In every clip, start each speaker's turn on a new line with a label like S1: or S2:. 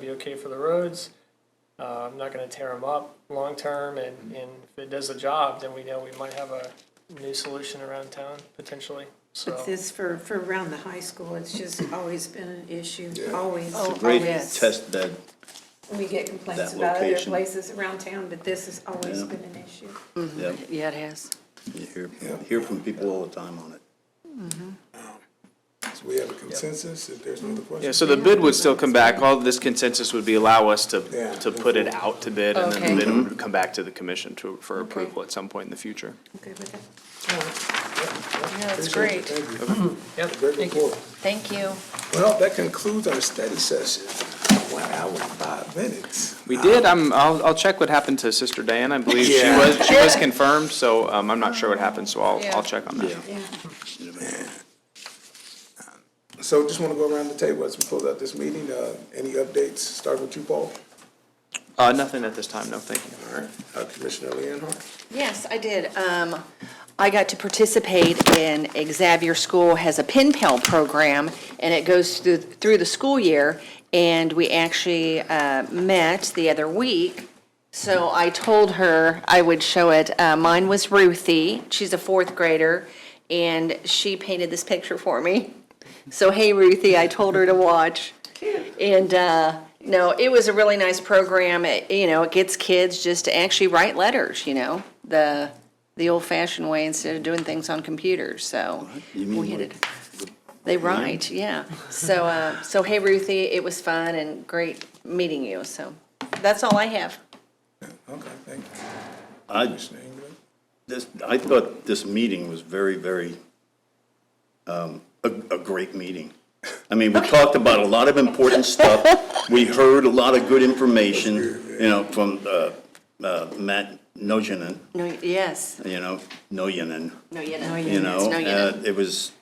S1: be okay for the roads. Uh, I'm not gonna tear them up long-term, and, and if it does the job, then we know we might have a new solution around town potentially, so.
S2: But this for, for around the high school, it's just always been an issue, always.
S3: It's a
S2: Oh,
S3: great
S2: always.
S3: test bed.
S2: We get complaints
S3: that
S2: about other
S3: location.
S2: places around town, but this has always
S3: Yeah.
S2: been an issue.
S3: Yeah,
S4: Yeah, it has.
S3: you hear, hear from people all the time on it.
S5: So we have a consensus, if there's no other questions?
S6: Yeah, so the bid would still come back, all of this consensus would be allow us to,
S5: Yeah.
S6: to put it out to bid, and then
S4: Okay.
S6: the bid would come back to the commission to, for approval at some point in the future.
S2: Okay with that?
S4: Yeah, that's
S5: Appreciate
S4: great.
S5: it. Thank you.
S1: Yep,
S5: Great
S1: thank you.
S5: report.
S4: Thank you.
S5: Well, that concludes our study session. One hour and five minutes.
S6: We did, I'm, I'll, I'll check what happened to Sister Diana, I believe she
S5: Yeah.
S6: was, she was confirmed, so, um, I'm not sure what happened, so I'll,
S4: Yeah.
S6: I'll check on that.
S2: Yeah.
S5: So just want to go around the table as we close out this meeting. Uh, Any updates, starting with you, Paul?
S6: Uh, nothing at this time, no, thank you.
S5: All right, Uh, Commissioner Leonhardt?
S3: Yes, I did. Um,
S7: I got to participate in Xavier School has a pen pal program, and it goes through, through the school year. And we actually uh, met the other week, so I told her I would show it. Uh, Mine was Ruthie, she's a fourth grader, and she painted this picture for me. So, hey, Ruthie, I told her to watch. And, uh, no, it was a really nice program. It, you know, it gets kids just to actually write letters, you know, the, the old fashioned way instead of doing things on computers, so.
S3: You mean
S7: we had
S3: like
S7: it- They write, yeah. So, uh, so hey, Ruthie, it was fun and great meeting you, so that's all I have.
S5: Okay, thank you.
S3: I,
S5: Commissioner England?
S3: this, I thought this meeting was very, very, um, a, a great meeting. I mean, we talked about a lot of important stuff. We heard a lot of good information, you know, from, uh, uh, Matt Nojinen,
S7: No, yes,
S3: you know, Nojinen.
S7: no, you know.
S3: you know,
S7: No, you
S3: uh,
S7: didn't.
S3: it was,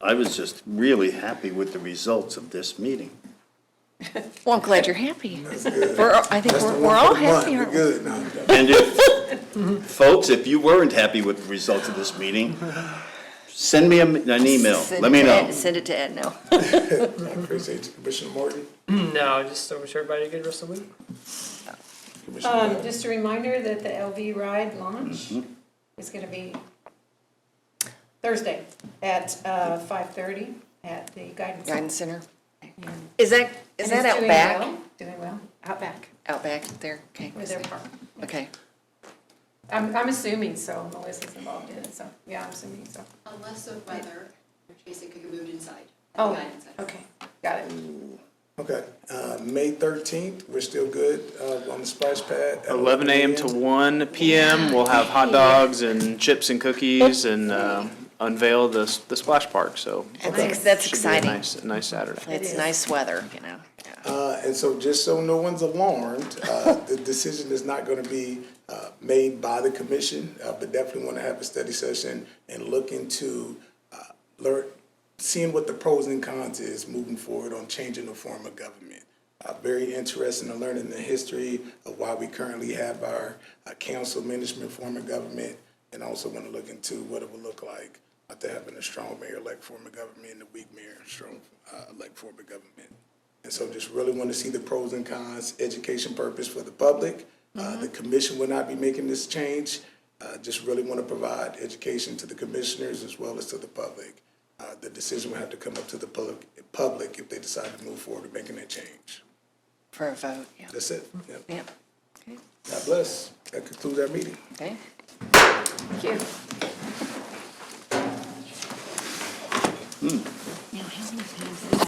S3: I was just really happy with the results of this meeting.
S7: Well, I'm glad you're happy. We're, I think
S5: That's
S7: we're,
S5: the one
S7: we're
S5: for
S7: all
S5: the month.
S7: happy,
S5: We're
S7: aren't we?
S5: Good, now.
S3: And if, folks, if you weren't happy with the results of this meeting, send me a- an email,
S7: Send
S3: let
S7: it
S3: me
S7: to
S3: know.
S7: Ed- Send it to Ed, no.
S5: I appreciate you, Commissioner Morton.
S1: No, just I wish everybody a good rest of the week.
S5: Commissioner
S2: Um,
S5: Brown.
S2: just a reminder that the LV ride launch
S3: Mm-hmm.
S2: is gonna be Thursday at, uh, five thirty at the guidance.
S7: Guidance Center. Is that, is
S2: And
S7: that
S2: it's
S7: out
S2: doing
S7: back?
S2: well, Doing well, out back,
S7: Out back there, okay.
S2: with their park.
S7: Okay.
S2: I'm, I'm assuming so, Melissa's involved in it, so, yeah, I'm assuming so.
S8: Unless of weather, which means it could get moved inside.
S2: Oh,
S8: Guidance center.
S2: okay, got it.
S5: Okay, uh, May thirteenth, we're still good, uh, on the splash pad. at
S6: Eleven AM to one PM, we'll have hot dogs and chips and cookies and, um, unveil the, s- the splash park, so.
S7: I think that's
S6: should be a
S7: exciting.
S6: nice- a Nice Saturday.
S7: It's nice weather, you know.
S5: Uh, and so just so no one's alarmed, uh, the decision is not gonna be, uh, made by the commission, uh, but definitely wanna have a study session and look into, uh, learn, seeing what the pros and cons is moving forward on changing the form of government. Uh, very interested in learning the history of why we currently have our, uh, council management form of government. And also wanna look into what it would look like after having a strong mayor-elect form of government and a weak mayor-strong, uh, elect form of government. And so just really want to see the pros and cons, education purpose for the public. Uh, The commission will not be making this change. Uh, Just really want to provide education to the commissioners as well as to the public. Uh, The decision will have to come up to the public, public if they decide to move forward with making that change.
S7: For a vote, yeah.
S5: That's it. Yep.
S7: Yep,
S5: God bless. That concludes our meeting.
S7: okay.
S2: Thank you.
S7: Now, how many times